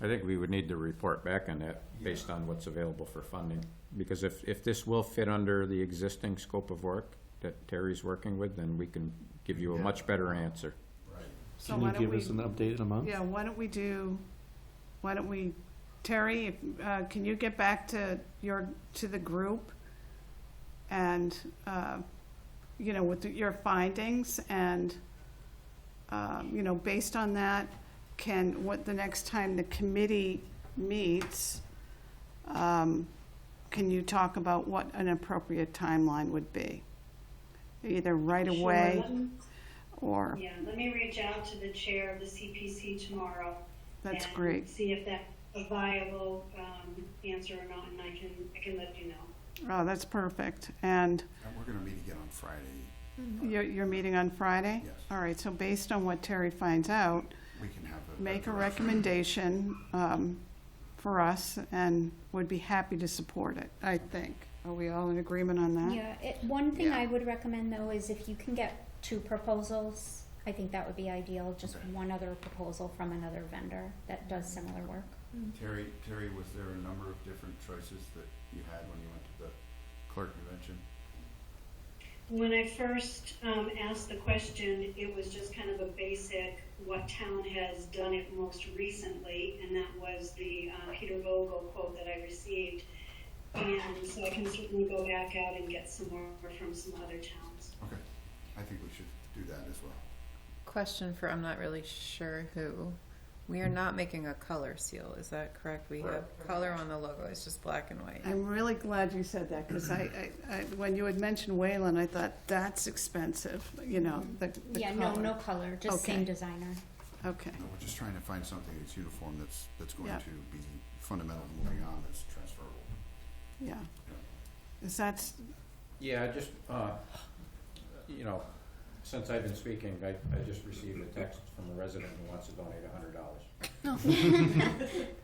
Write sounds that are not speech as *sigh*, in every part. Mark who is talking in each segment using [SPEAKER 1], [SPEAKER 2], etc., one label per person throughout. [SPEAKER 1] I think we would need to report back on that based on what's available for funding. Because if, if this will fit under the existing scope of work that Terry's working with, then we can give you a much better answer.
[SPEAKER 2] So
[SPEAKER 3] Can
[SPEAKER 2] why
[SPEAKER 3] you
[SPEAKER 2] don't
[SPEAKER 3] give
[SPEAKER 2] we,
[SPEAKER 3] us an update in a month?
[SPEAKER 2] yeah, why don't we do, why don't we, Terry, if, uh, can you get back to your, to the group? And, uh, you know, with your findings and, um, you know, based on that, can, what, the next time the committee meets, um, can you talk about what an appropriate timeline would be? Either right
[SPEAKER 4] Sure,
[SPEAKER 2] away
[SPEAKER 4] let me-
[SPEAKER 2] or,
[SPEAKER 4] Yeah, let me reach out to the chair of the CPC tomorrow.
[SPEAKER 2] that's
[SPEAKER 4] and
[SPEAKER 2] great.
[SPEAKER 4] See if that's a viable um, answer or not, and I can, I can let you know.
[SPEAKER 2] Oh, that's perfect. And
[SPEAKER 5] And we're gonna meet again on Friday.
[SPEAKER 2] you're, you're meeting on Friday?
[SPEAKER 5] Yes.
[SPEAKER 2] All right, so based on what Terry finds out,
[SPEAKER 5] We can have a.
[SPEAKER 2] make a
[SPEAKER 5] direction.
[SPEAKER 2] recommendation um, for us and would be happy to support it, I think. Are we all in agreement on that?
[SPEAKER 6] Yeah, it, one thing
[SPEAKER 2] Yeah.
[SPEAKER 6] I would recommend though is if you can get two proposals, I think that would be ideal, just
[SPEAKER 5] Okay.
[SPEAKER 6] one other proposal from another vendor that does similar work.
[SPEAKER 5] Terry, Terry, was there a number of different choices that you had when you went to the clerk convention?
[SPEAKER 4] When I first um, asked the question, it was just kind of a basic, what town has done it most recently? And that was the uh, Peter Vogel quote that I received. And so I can certainly go back out and get some more from some other towns.
[SPEAKER 5] Okay, I think we should do that as well.
[SPEAKER 7] Question for I'm not really sure who. We are not making a color seal, is that correct? We have color on the logo, it's just black and white.
[SPEAKER 2] I'm really glad you said that because I, I, I- when you had mentioned Wayland, I thought, that's expensive, you know, the the
[SPEAKER 6] Yeah, no,
[SPEAKER 2] color."
[SPEAKER 6] no color, just
[SPEAKER 2] Okay.
[SPEAKER 6] same designer.
[SPEAKER 2] Okay,
[SPEAKER 5] No, we're just trying to find something that's uniform, that's, that's going
[SPEAKER 2] Yeah.
[SPEAKER 5] to be fundamental moving on, that's transferable.
[SPEAKER 2] yeah. Is that, s-
[SPEAKER 1] Yeah, I just, uh, you know, since I've been speaking, I, I just received a text from a resident who wants to donate a hundred dollars. *laughs*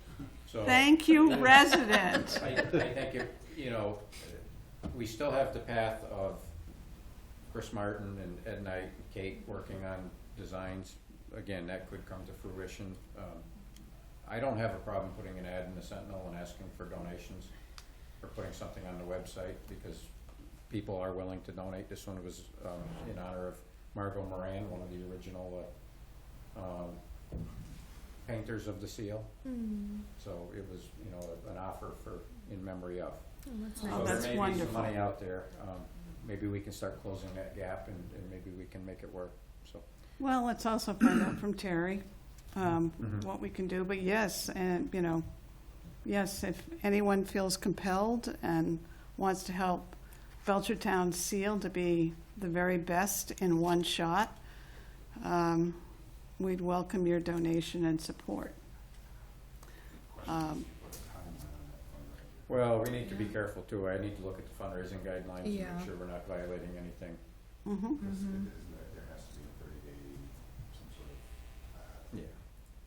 [SPEAKER 1] So.
[SPEAKER 2] thank you, resident.
[SPEAKER 1] I, I think if, you know, we still have the path of Chris Martin and Ed and I, Kate, working on designs. Again, that could come to fruition. Um, I don't have a problem putting an ad in the Sentinel and asking for donations or putting something on the website because people are willing to donate. This one was, um, in honor of Margot Moran, one of the original, uh, um, painters of the seal. So it was, you know, an offer for, in memory of.
[SPEAKER 2] Oh, that's
[SPEAKER 1] So there may be some
[SPEAKER 2] wonderful.
[SPEAKER 1] money out there. Um, Maybe we can start closing that gap and, and maybe we can make it work, so.
[SPEAKER 2] Well, let's also find out from Terry um,
[SPEAKER 1] Mhm.
[SPEAKER 2] what we can do, but yes, and, you know, yes, if anyone feels compelled and wants to help Belchertown Seal to be the very best in one shot, um, we'd welcome your donation and support. Um,
[SPEAKER 1] Well, we need to be careful too. I need to look at the fundraising guidelines and
[SPEAKER 7] Yeah.
[SPEAKER 1] make sure we're not violating anything.
[SPEAKER 2] mhm.
[SPEAKER 5] Because it is- there- there has to be a thirty day, some sort of, uh,
[SPEAKER 1] Yeah.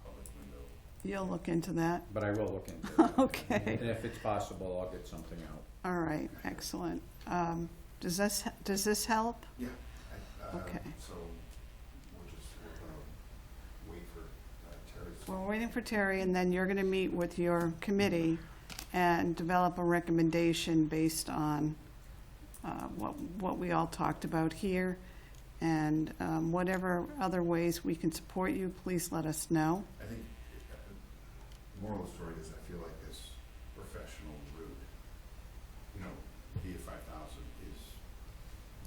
[SPEAKER 5] public window.
[SPEAKER 2] You'll look into that? *laughs*
[SPEAKER 1] But I will look into it.
[SPEAKER 2] Okay.
[SPEAKER 1] And if it's possible, I'll get something out.
[SPEAKER 2] All right, excellent. Um, Does this, does this help?
[SPEAKER 5] Yeah, I, uh,
[SPEAKER 2] Okay.
[SPEAKER 5] so we'll just, we're gonna wait for uh, Terry's.
[SPEAKER 2] We're waiting for Terry, and then you're going to meet with your committee and develop a recommendation based on uh, what, what we all talked about here. And um, whatever other ways we can support you, please let us know.
[SPEAKER 5] I think uh, the moral of the story is I feel like this professional route, you know, via five thousand is.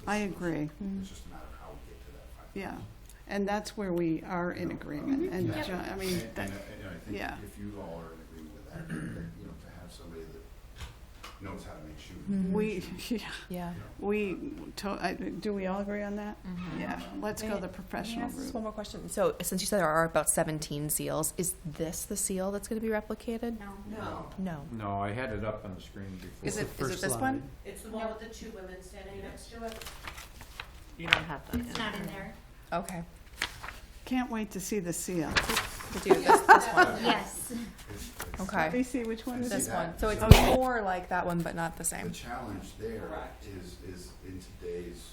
[SPEAKER 5] the
[SPEAKER 2] I
[SPEAKER 5] solution.
[SPEAKER 2] agree, Mm-hmm.
[SPEAKER 5] It's just a matter of how we get to that five thousand.
[SPEAKER 2] yeah. And that's where we are in agreement, and,
[SPEAKER 6] Yep.
[SPEAKER 2] Jo- I mean, that,
[SPEAKER 5] And, and I think
[SPEAKER 2] yeah.
[SPEAKER 5] if you all are in agreement with that, that, you know, to have somebody that knows how to make shoes.
[SPEAKER 2] we, *laughs*
[SPEAKER 7] Yeah.
[SPEAKER 2] we, to- I- do we all agree on that?
[SPEAKER 7] Mm-hmm.
[SPEAKER 2] Yeah, let's go the professional
[SPEAKER 8] Can I ask just one
[SPEAKER 2] route.
[SPEAKER 8] more question? So, since you said there are about 17 seals, is this the seal that's going to be replicated?
[SPEAKER 6] No.
[SPEAKER 9] No,
[SPEAKER 5] Um,
[SPEAKER 8] No.
[SPEAKER 1] No, I had it up on the screen before.
[SPEAKER 8] Is it,
[SPEAKER 3] the
[SPEAKER 8] is
[SPEAKER 3] first
[SPEAKER 8] it this
[SPEAKER 3] line.
[SPEAKER 8] one?
[SPEAKER 9] it's the one with the two women standing next to it.
[SPEAKER 8] You don't have that.
[SPEAKER 6] It's not in there.
[SPEAKER 8] Okay.
[SPEAKER 2] Can't wait to see the seal.
[SPEAKER 8] To do this, this one.
[SPEAKER 5] It's-
[SPEAKER 6] Yes.
[SPEAKER 5] it's-
[SPEAKER 2] *laughs*
[SPEAKER 8] Okay.
[SPEAKER 2] Lacey, which one is it?
[SPEAKER 8] This one. So it's
[SPEAKER 2] Okay.
[SPEAKER 8] more like that one, but not the
[SPEAKER 5] The
[SPEAKER 8] same.
[SPEAKER 5] challenge there
[SPEAKER 9] Correct.
[SPEAKER 5] is, is in today's